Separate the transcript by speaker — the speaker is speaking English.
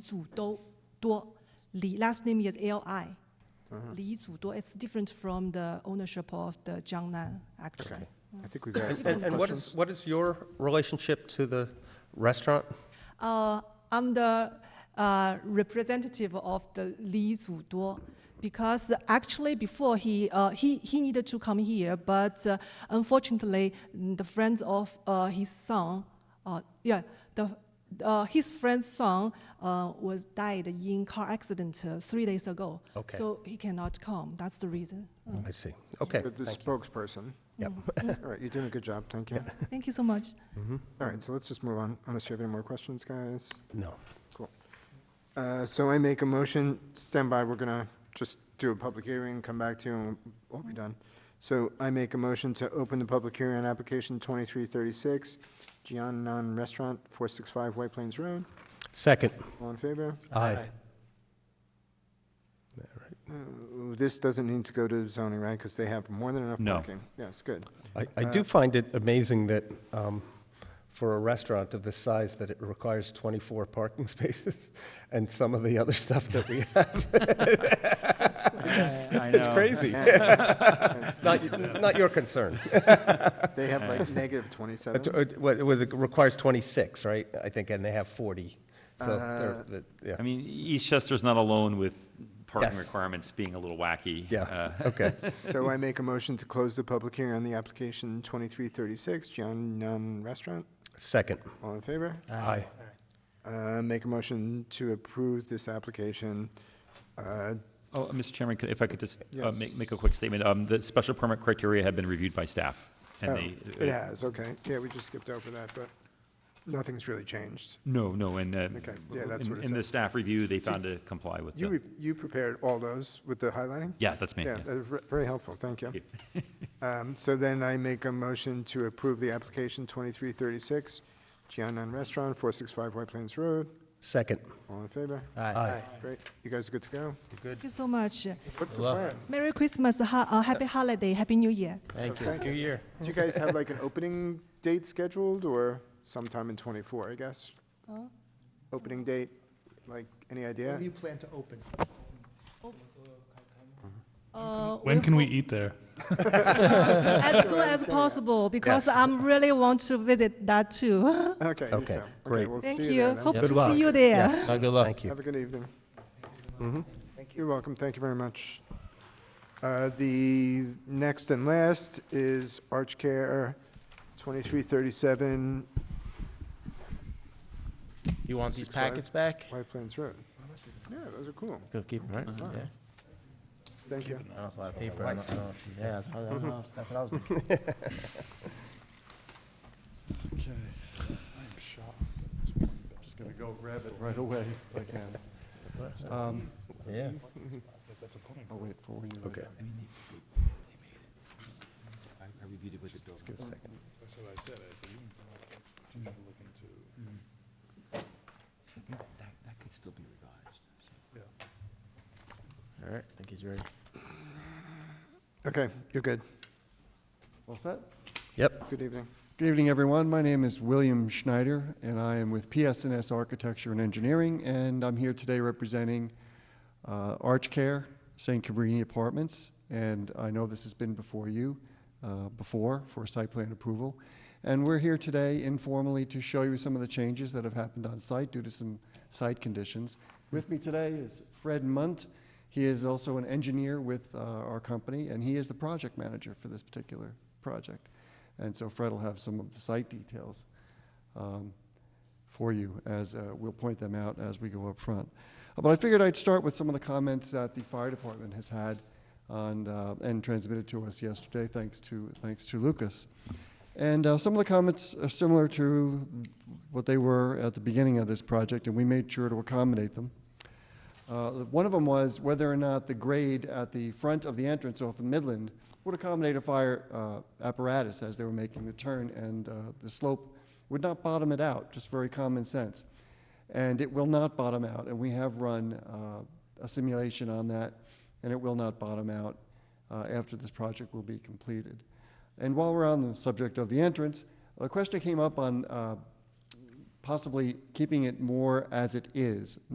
Speaker 1: Zu Do Duo. Li last name is L I. Li Zu Duo. It's different from the ownership of the Jiangnan actually.
Speaker 2: Okay. I think we've asked
Speaker 3: And,
Speaker 2: enough
Speaker 3: and what is,
Speaker 2: questions.
Speaker 3: what is your relationship to the restaurant?
Speaker 1: Uh, I'm the uh, representative of the Li Zuduo because actually before he, uh, he, he needed to come here, but uh, unfortunately mm, the friends of uh, his son, uh, yeah, the, uh, his friend's son uh, was died in car accident uh, three days ago.
Speaker 3: Okay. Mm,
Speaker 1: So he cannot come. That's the reason. Uh,
Speaker 3: I see. Okay,
Speaker 2: The the spokesperson.
Speaker 3: Yep.
Speaker 2: All right, you're doing a good job, thank you.
Speaker 1: mm. Thank you so much.
Speaker 2: All right, so let's just move on, unless you have any more questions, guys.
Speaker 3: no.
Speaker 2: Cool. Uh, So I make a motion, stand by, we're gonna just do a public hearing, come back to you, and we'll be done. So I make a motion to open the public hearing on application 2336, Jiannan Restaurant, 465 White Plains Road.
Speaker 3: Second.
Speaker 2: All in favor?
Speaker 3: Aye.
Speaker 2: Uh, This doesn't need to go to zoning, right? Because they have more than enough
Speaker 4: No.
Speaker 2: parking. Yes, good.
Speaker 3: I, I do find it amazing that um, for a restaurant of this size, that it requires 24 parking spaces and some of the other stuff that we have.
Speaker 4: I
Speaker 3: It's
Speaker 4: know.
Speaker 3: crazy. Not, y- not your concern.
Speaker 2: They have like negative 27.
Speaker 3: Uh, what- what It requires 26, right? I think, and they have 40. So, they're- the- yeah.
Speaker 4: I mean, Eastchester's not alone with parking
Speaker 3: Yes.
Speaker 4: requirements being a little wacky.
Speaker 3: Yeah,
Speaker 4: Uh,
Speaker 3: okay.
Speaker 2: So I make a motion to close the public hearing on the application 2336, Jiannan Restaurant.
Speaker 3: Second.
Speaker 2: All in favor?
Speaker 3: Aye.
Speaker 2: Uh, Make a motion to approve this application. Uh,
Speaker 4: Oh, Mr. Chairman, could- if I could just uh,
Speaker 2: Yes.
Speaker 4: make, make a quick statement. Um, The special permit criteria have been reviewed by staff.
Speaker 2: oh,
Speaker 4: and uh, they.
Speaker 2: It has, okay. Yeah, we just skipped over that, but nothing's really changed.
Speaker 4: No, no, and. uh,
Speaker 2: Okay, yeah, that's
Speaker 4: in-
Speaker 2: what it
Speaker 4: In the
Speaker 2: said.
Speaker 4: staff review, they found to comply with
Speaker 2: You,
Speaker 4: the,
Speaker 2: re- you prepared all those with the highlighting?
Speaker 4: yeah, that's me.
Speaker 2: Yeah,
Speaker 4: yeah.
Speaker 2: that was ve- very helpful, thank you.
Speaker 4: Thank
Speaker 2: Um, So then I make a motion to approve the application 2336, Jiannan Restaurant, 465 White Plains Road.
Speaker 3: Second.
Speaker 2: All in favor?
Speaker 3: Aye.
Speaker 2: Great, you guys are good to go?
Speaker 1: Thank you so much.
Speaker 2: What's the
Speaker 5: Well-
Speaker 2: plan?
Speaker 1: Merry Christmas, ha- uh, Happy Holiday, Happy New Year.
Speaker 5: Thank you.
Speaker 2: Okay.
Speaker 3: New year.
Speaker 2: Do you guys have like an opening date scheduled or sometime in '24, I guess? Opening date, like, any idea?
Speaker 6: When do you plan to open?
Speaker 1: Uh,
Speaker 7: When can we eat there?
Speaker 1: as soon as possible because
Speaker 3: Yes.
Speaker 1: I'm really want to visit that too.
Speaker 2: Okay. you
Speaker 3: Okay,
Speaker 2: tell.
Speaker 3: great.
Speaker 2: we'll
Speaker 1: Thank
Speaker 2: see
Speaker 1: you.
Speaker 2: there then.
Speaker 1: Hope
Speaker 5: Yep.
Speaker 1: to
Speaker 5: Good luck.
Speaker 1: see you there.
Speaker 3: Yes.
Speaker 5: Uh, good luck.
Speaker 3: Thank you.
Speaker 2: Have a good evening. You're welcome, thank you very much. Uh, The next and last is Arch Care 2337
Speaker 5: You want these
Speaker 2: Six five.
Speaker 5: packets back?
Speaker 2: White Plains Road. Yeah, those are cool,
Speaker 5: Go keep them, right? Yeah.
Speaker 2: thank you.
Speaker 5: I also have paper. I don't know if she- Yeah, that's what I don't know if- that's what I was thinking.
Speaker 8: Okay, I'm shocked. I'm just gonna go grab it right away if I can. Um,
Speaker 5: Yeah.
Speaker 3: Oh,
Speaker 8: I'll wait for you.
Speaker 3: Okay. Mm-hmm.
Speaker 5: All right, I think he's ready.
Speaker 2: Okay, you're good,
Speaker 8: All set?
Speaker 3: Yep.
Speaker 2: good evening.
Speaker 8: Good evening, everyone. My name is William Schneider, and I am with PS&S Architecture and Engineering, and I'm here today representing uh, ArchCare, St. Cabrini Apartments, and I know this has been before you, uh, before, for site plan approval. And we're here today informally to show you some of the changes that have happened on site due to some site conditions. With me today is Fred Munt. He is also an engineer with uh, our company, and he is the project manager for this particular project. And so Fred will have some of the site details um, for you as uh, we'll point them out as we go up front. Uh, But I figured I'd start with some of the comments that the fire department has had on, uh, and transmitted to us yesterday, thanks to, thanks to Lucas. And uh, some of the comments are similar to what they were at the beginning of this project, and we made sure to accommodate them. Uh, One of them was whether or not the grade at the front of the entrance off of Midland would accommodate a fire uh, apparatus as they were making the turn, and uh, the slope would not bottom it out, just very common sense. And it will not bottom out, and we have run uh, a simulation on that, and it will not bottom out uh, after this project will be completed. And while we're on the subject of the entrance, a question came up on uh, possibly keeping it more as it is,